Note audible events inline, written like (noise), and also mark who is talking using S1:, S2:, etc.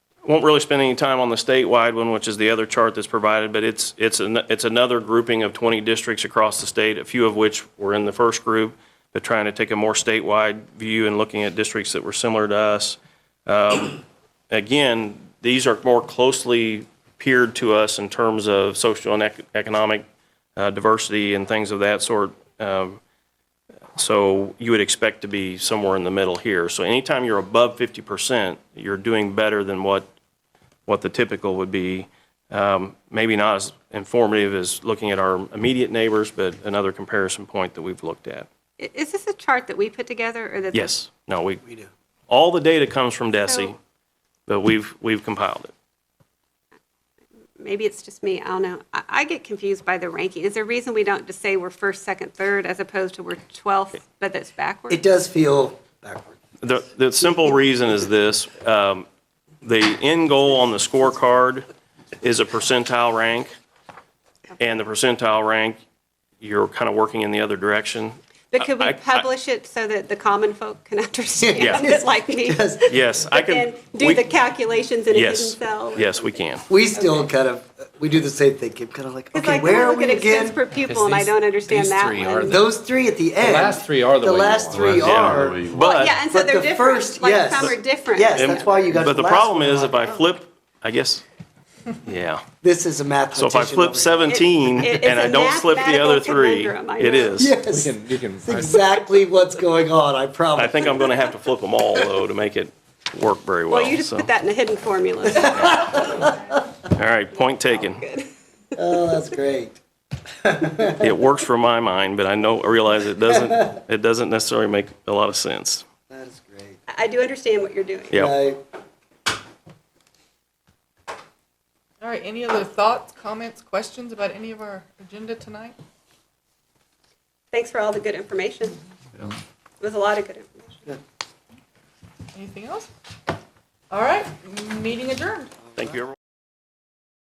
S1: won't really spend any time on the statewide one, which is the other chart that's provided, but it's, it's, an- it's another grouping of 20 districts across the state, a few of which were in the first group. They're trying to take a more statewide view and looking at districts that were similar to us. Um, Again, these are more closely peered to us in terms of social and ec- economic uh, diversity and things of that sort. Um, so you would expect to be somewhere in the middle here. So anytime you're above 50%, you're doing better than what, what the typical would be. Um, Maybe not as informative as looking at our immediate neighbors, but another comparison point that we've looked at.
S2: I- Is this a chart that we put together or that? the-
S1: Yes, no, we, all the data comes from DESI,
S2: So-
S1: but we've, we've compiled it.
S2: Maybe it's just me, I don't know. I, I get confused by the ranking. Is there a reason we don't just say we're first, second, third as opposed to we're 12th, but that's backwards?
S3: It does feel backward. (laughs)
S1: The, the simple reason is this, um, the end goal on the scorecard is a percentile rank. And the percentile rank, you're kind of working in the other direction.
S2: But could
S1: I- I-
S2: we publish it so that the common folk can (laughs) understand
S1: Yeah.
S2: it like
S3: (laughs)
S2: me?
S3: Because
S1: Yes, I
S2: But
S1: can.
S2: then do
S1: we-
S2: the calculations in a hidden
S1: Yes,
S2: cell?
S1: yes, we can.
S3: we still kind of, we do the same thing, Kim, kind of like,
S2: It's
S3: okay,
S2: like, I
S3: where are
S2: look at
S3: we
S2: expense
S3: again?
S2: per pupil and I
S4: these-
S2: don't understand
S4: these
S2: that
S4: three are
S2: one.
S4: the-
S3: Those three at the end.
S4: last three are the way
S3: The
S4: you
S3: last
S4: want.
S3: three
S4: Yeah,
S3: are.
S2: Well, Yeah, and so
S3: But
S2: they're
S3: the
S2: different,
S3: first-
S2: like
S3: yes.
S2: some are different.
S3: Yes, that's why you got
S1: But the
S3: last
S1: problem
S3: one.
S1: is if I
S2: oh.
S1: flip, I guess, yeah.
S3: This is a
S1: So
S3: mathematician.
S1: if I flip
S3: over here.
S1: 17
S2: It- it's
S1: and I
S2: a
S1: don't flip the other
S2: mathematical
S1: three,
S2: conundrum, I
S1: it
S2: know.
S1: (laughs) is.
S4: We
S3: Yes,
S4: can, you can,
S3: that's exactly what's going on, I promise.
S1: I think I'm going to have to flip them all though to make it work very well.
S2: Well, you just
S1: so.
S2: put that in a hidden formula.
S1: All right, point taken. (laughs)
S3: Oh, that's great.
S2: Oh,
S1: It works for my mind, but I know, I realize it doesn't, it doesn't necessarily make a lot of sense.
S3: That is great.
S2: I do understand what you're doing.
S1: Yeah.
S3: I-
S5: All right, any other thoughts, comments, questions about any of our agenda tonight?
S2: Thanks for all the good information. It was a lot of good information.
S5: Anything else? All right, meeting adjourned.
S1: Thank you, everyone.